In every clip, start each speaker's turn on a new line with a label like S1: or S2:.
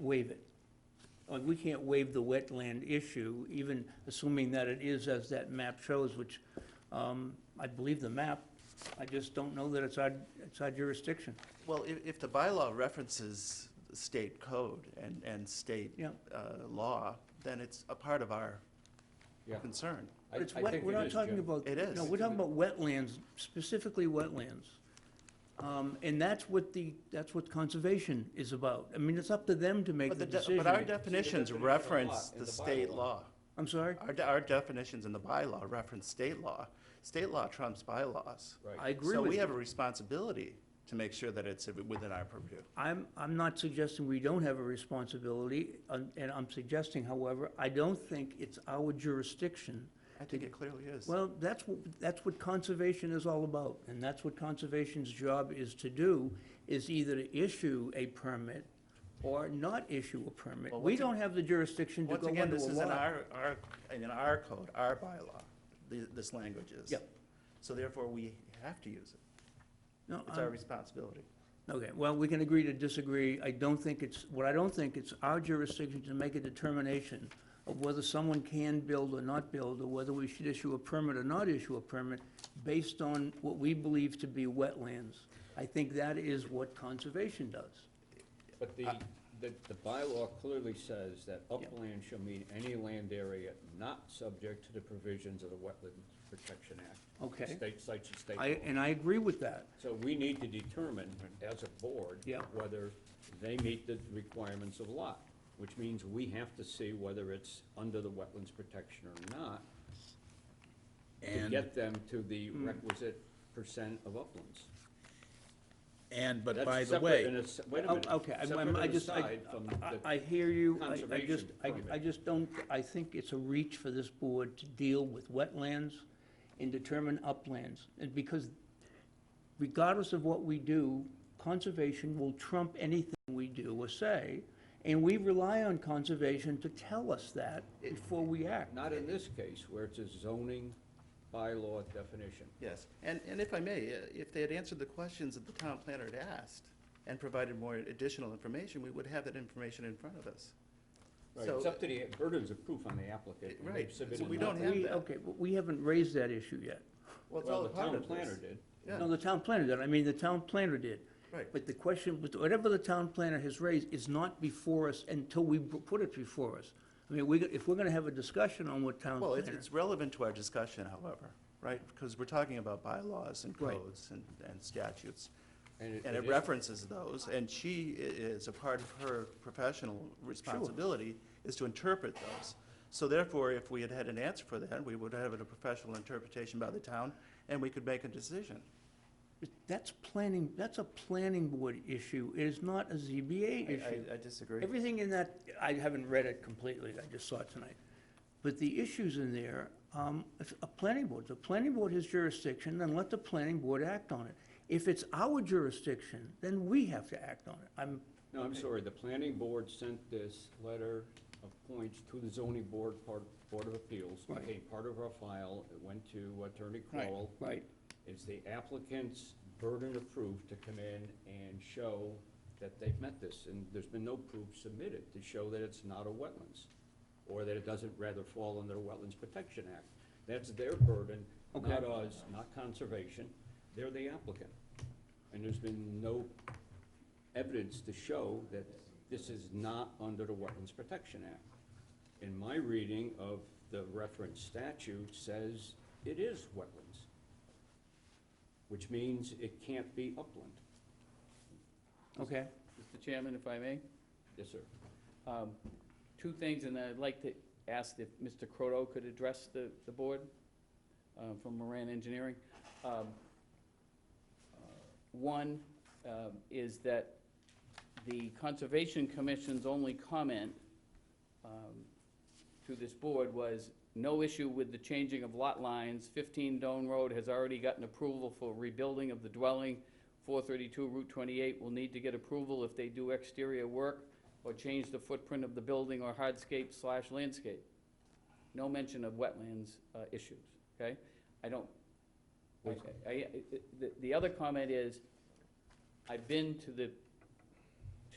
S1: waive it. Like, we can't waive the wetland issue, even assuming that it is as that map shows, which, um, I believe the map. I just don't know that it's our, it's our jurisdiction.
S2: Well, if, if the bylaw references state code and, and state
S1: Yeah.
S2: uh, law, then it's a part of our
S3: Yeah.
S2: concern.
S3: I-
S1: But it's
S3: I
S1: wet,
S3: think
S1: we're
S3: it
S1: not
S3: is,
S1: talking
S3: Jim.
S1: about.
S2: It is.
S1: No, we're talking about wetlands, specifically wetlands. Um, and that's what the, that's what conservation is about. I mean, it's up to them to make
S2: But
S1: the
S2: the, de- but our
S1: decision.
S2: definitions
S3: definition of
S2: reference
S3: lot in
S2: the
S3: the
S2: state
S3: bylaw.
S2: law.
S1: I'm sorry?
S2: Our, de- our definitions in the bylaw reference state law. State law trumps bylaws.
S3: Right.
S1: I agree
S2: So
S1: with
S2: we
S1: you.
S2: have a responsibility to make sure that it's within our purview.
S1: I'm, I'm not suggesting we don't have a responsibility, um, and I'm suggesting, however, I don't think it's our jurisdiction.
S2: I think it clearly is.
S1: Well, that's, what- that's what conservation is all about, and that's what conservation's job is to do, is either to issue a permit or not issue a permit.
S2: Well,
S1: We
S2: once ag-
S1: don't have the jurisdiction to
S2: Once
S1: go
S2: again,
S1: under a
S2: this is in
S1: law.
S2: our, our, in our code, our bylaw, th- this language is.
S1: Yep.
S2: So therefore, we have to use it.
S1: No,
S2: It's our
S1: I'm-
S2: responsibility.
S1: Okay, well, we can agree to disagree. I don't think it's, what I don't think, it's our jurisdiction to make a determination of whether someone can build or not build, or whether we should issue a permit or not issue a permit, based on what we believe to be wetlands. I think that is what conservation does.
S3: But the, the, the bylaw clearly says that upland shall mean any land area not subject to the provisions of the Wetland Protection Act.
S1: Okay.
S3: State sites and state.
S1: I,
S3: law.
S1: and I agree with that.
S3: So we need to determine as a board.
S1: Yeah.
S3: Whether they meet the requirements of lot, which means we have to see whether it's under the Wetlands Protection or not. To
S4: And-
S3: get them to the
S1: Hmm.
S3: requisite percent of uplands.
S4: And, but
S3: That's
S4: by the
S3: separate and
S4: way,
S3: it's- Wait a
S1: Oh,
S3: minute.
S1: Okay, I'm-
S3: Separate
S1: I'm- I
S3: and
S1: just, I,
S3: aside from the-
S1: I- I hear you, I- I
S3: conservation
S1: just, I,
S3: permit.
S1: I just don't, I think it's a reach for this board to deal with wetlands and determine uplands, and because regardless of what we do, conservation will trump anything we do or say, and we rely on conservation to tell us that before we act.
S3: Not in this case, where it's a zoning bylaw definition.
S2: Yes, and, and if I may, uh, if they had answered the questions that the town planner had asked and provided more additional information, we would have that information in front of us.
S3: Right,
S2: So-
S3: it's up to the burdens of proof on the applicant. and they've
S2: Right, so
S3: submitted
S2: we don't
S3: nothing.
S2: have
S1: We-
S2: that.
S1: Okay, but we haven't raised that issue yet.
S2: it's
S3: Well,
S2: all
S3: the
S2: a part
S3: town
S2: of this.
S3: planner did.
S2: Yeah.
S1: No, the town planner did, I mean, the town planner did.
S2: Right.
S1: But the question, but whatever the town planner has raised is not before us until we p- put it before us. I mean, we, if we're gonna have a discussion on what town
S2: Well, it's,
S1: planner,
S2: it's relevant to our discussion, however, right? Because we're talking about bylaws and
S1: Right.
S2: codes and, and statutes.
S3: And it-
S2: And
S3: it
S2: it
S3: is-
S2: references those, and she i- is, a part of her professional responsibility is to interpret those. So therefore, if we had had an answer for that, we would have had a professional interpretation by the town, and we could make a decision.
S1: that's planning, that's a planning board issue, it is not a ZBA
S2: I-
S1: issue.
S2: I I disagree.
S1: Everything in that, I haven't read it completely, I just saw it tonight. But the issues in there, um, it's a planning board, the planning board has jurisdiction, then let the planning board act on it. If it's our jurisdiction, then we have to act on it. I'm,
S3: No, I'm sorry, the planning board sent this letter of points to the zoning board, part, Board of Appeals,
S1: Right.
S3: became part of our file, it went to Attorney Crowell.
S1: right,
S3: It's the applicant's burden of proof to come in and show that they've met this, and there's been no proof submitted to show that it's not a wetlands, or that it doesn't rather fall under the Wetlands Protection Act. That's their burden, not ours, not conservation, they're the applicant. And there's been no evidence to show that this is not under the Wetlands Protection Act. In my reading of the reference statute says it is wetlands which means it can't be upland.
S1: okay.
S5: Mr. Chairman, if I may,
S3: Yes, sir.
S5: um, two things, and I'd like to ask if Mr. Croto could address the, the board uh, from Moran Engineering. Um, uh, One um, is that the Conservation Commission's only comment um, to this board was, no issue with the changing of lot lines. 15 Doan Road has already gotten approval for rebuilding of the dwelling. 432 Route 28 will need to get approval if they do exterior work or change the footprint of the building or hardscape slash landscape. No mention of wetlands uh, issues, okay? I don't, I, I- I- the, the other comment is, I've been to the,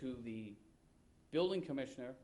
S5: to the building commissioner